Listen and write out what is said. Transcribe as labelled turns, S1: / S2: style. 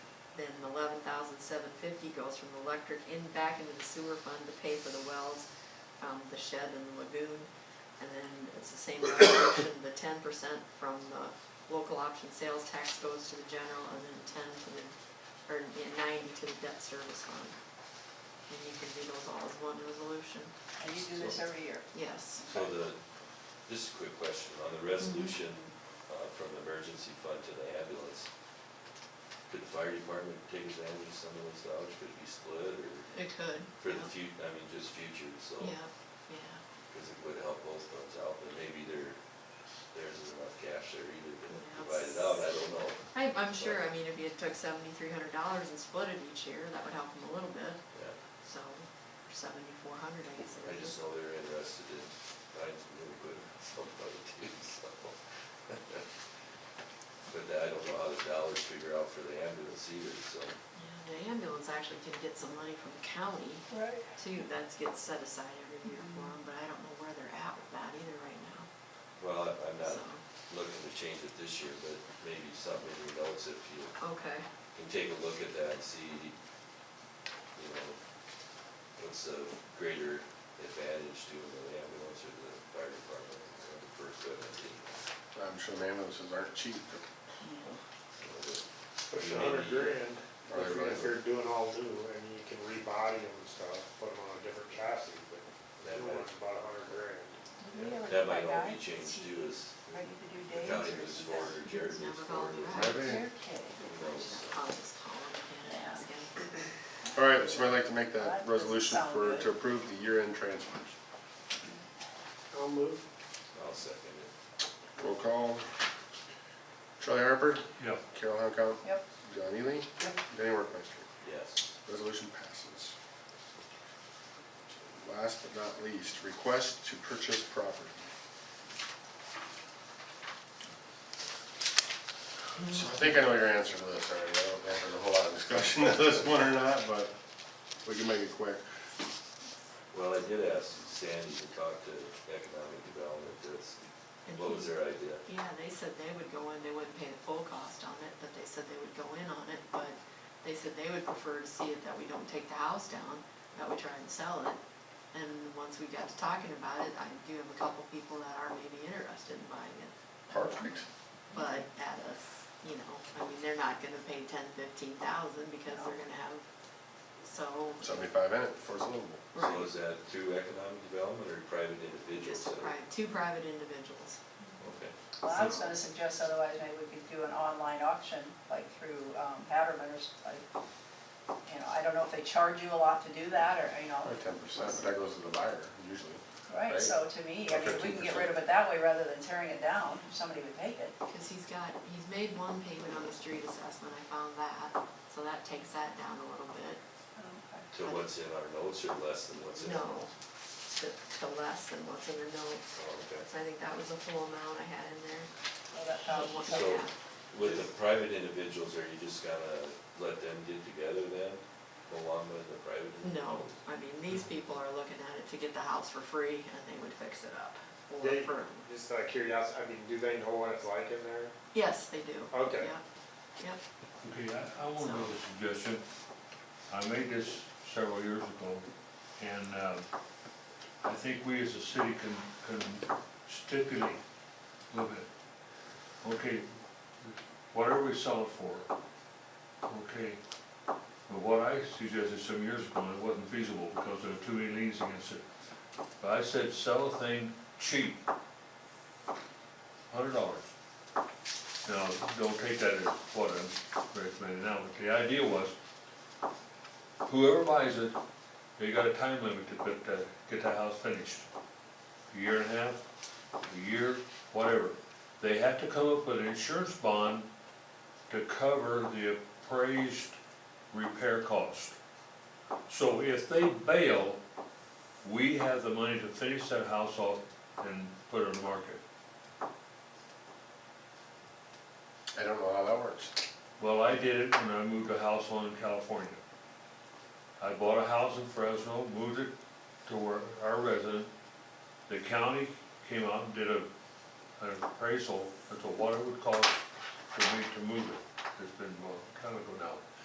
S1: then eleven thousand seven fifty goes from the electric in, back into the sewer fund to pay for the wells, um, the shed and the lagoon. And then it's the same resolution, the ten percent from the local option sales tax goes to the general and then ten to the, or yeah, ninety to the debt service fund. And you can do those all as one resolution,
S2: And you do this every year?
S1: yes.
S3: So the, this is a quick question, on
S1: Mm-hmm.
S3: the resolution uh, from the emergency fund to the ambulance, could the fire department take advantage of some of those dollars, could it be split, or
S1: It could.
S3: for the fut, I mean, just future, so,
S1: Yeah, yeah,
S3: because it would help both funds out, but maybe there, there's enough cash there either to
S1: Yeah,
S3: divide
S1: it's-
S3: it out, I don't know.
S1: I, I'm sure, I mean, if you took seventy-three hundred dollars and split it each year, that would help them a little bit,
S3: Yeah,
S1: so, or seventy-four hundred, I guess. it
S3: I
S1: would be.
S3: just know they're interested in buying some new equipment, somebody too, so. But I don't know how the dollars figure out for the ambulance either, so.
S1: Yeah, the ambulance actually can get some money from the county
S2: Right.
S1: too, that gets set aside every year for them, but I don't know where they're at with that either right now,
S3: Well, I- I'm not
S1: so,
S3: looking to change it this year, but maybe something in your notes if you
S1: okay,
S3: can take a look at that and see, you know, what's the greater advantage to the ambulance or the fire department or the first aid.
S4: I'm sure the ambulances aren't cheap.
S5: Push a hundred grand, if you're- if you're doing all new, and you can rebody them and stuff, put them on a different chassis, but that one's about a hundred grand.
S3: That might all be changed too as
S2: Are you to do
S3: the
S2: days
S3: county
S2: or
S3: moves
S2: is
S3: forward
S2: that-
S3: or Jared moves
S1: Never
S3: forward.
S1: gone
S3: with
S1: back.
S3: it.
S4: Maybe.
S3: Who knows?
S1: I'll just call them again and ask him.
S4: All right, would somebody like to make that
S2: That doesn't
S4: resolution
S2: sound
S4: for,
S2: good.
S4: to approve the year-end transfers?
S5: I'll move.
S3: I'll second it.
S4: Roll call. Charlie Harper,
S5: Yeah.
S4: Carol Hunkell,
S2: Yep,
S4: John Ely,
S2: yep.
S4: Danny Workmeister.
S3: Yes.
S4: Resolution passes. Last but not least, request to purchase property. So I think I know your answer to this already. I don't know if there's a whole lot of discussion to this one or not, but we can make it quick.
S3: Well, I did ask Sandy to talk to economic development, that's,
S1: And
S3: what was
S1: he-
S3: their idea?
S1: Yeah, they said they would go in, they wouldn't pay the full cost on it, but they said they would go in on it, but they said they would prefer to see it that we don't take the house down, that we try and sell it. And once we got to talking about it, I do have a couple people that are maybe interested in buying it,
S4: Perfect.
S1: but at us, you know, I mean, they're not gonna pay ten, fifteen thousand because they're gonna have, so,
S4: Seventy-five in it before it's livable.
S3: So
S1: right,
S3: is that through economic development or private individuals?
S1: just
S3: that are-
S1: pri- two private individuals.
S3: Okay,
S2: Well, I was gonna suggest otherwise maybe we could do an online auction, like through um, Patterman or, s- like, you know, I don't know if they charge you a lot to do that, or, you know.
S4: Probably ten percent, but that goes to the buyer usually.
S2: Right,
S4: right?
S2: so to me, I mean, we can get
S4: 15%.
S2: rid of it that way rather than tearing it down, if somebody would take it. Oh,
S1: Cause he's got, he's made one payment on the street assessment, I found that, so that takes that down a little bit.
S3: so what's in our notes or less than what's in? our
S1: No,
S3: notes?
S1: to, to less than what's in the notes,
S3: Oh, okay.
S1: so I think that was the full amount I had in there.
S2: Well, that thousand
S1: What-
S3: So-
S1: yeah.
S3: With the private individuals, are you just gonna let them get together then, along with the private?
S1: No, I mean, these people are looking at it to get the house for free and they would fix it up. or
S5: They,
S1: for-
S5: just out of curiosity, I mean, do they know what it's like in there?
S1: Yes, they do.
S5: Okay.
S1: Yep, yep,
S6: Okay, I, I want to make a suggestion. I made this several years ago, and, uh, I think we as a city can, can stipulate a little bit. Okay, whatever we sell it for, okay. But what I suggested some years ago, and it wasn't feasible because there were too many liens against it. But I said, sell a thing cheap, hundred dollars. Now, don't take that as what I'm recommending now, but the idea was, whoever buys it, they got a time limit to put, the- get the house finished. A year and a half, a year, whatever. They had to come up with an insurance bond to cover the appraised repair cost. So if they bail, we have the money to finish that house off and put it on the market.
S4: I don't know how that works.
S6: Well, I did it when I moved a house on in California. I bought a house in Fresno, moved it to where our resident. The county came out and did a, an appraisal as to what it would cost for me to move it. It's been a long time ago now.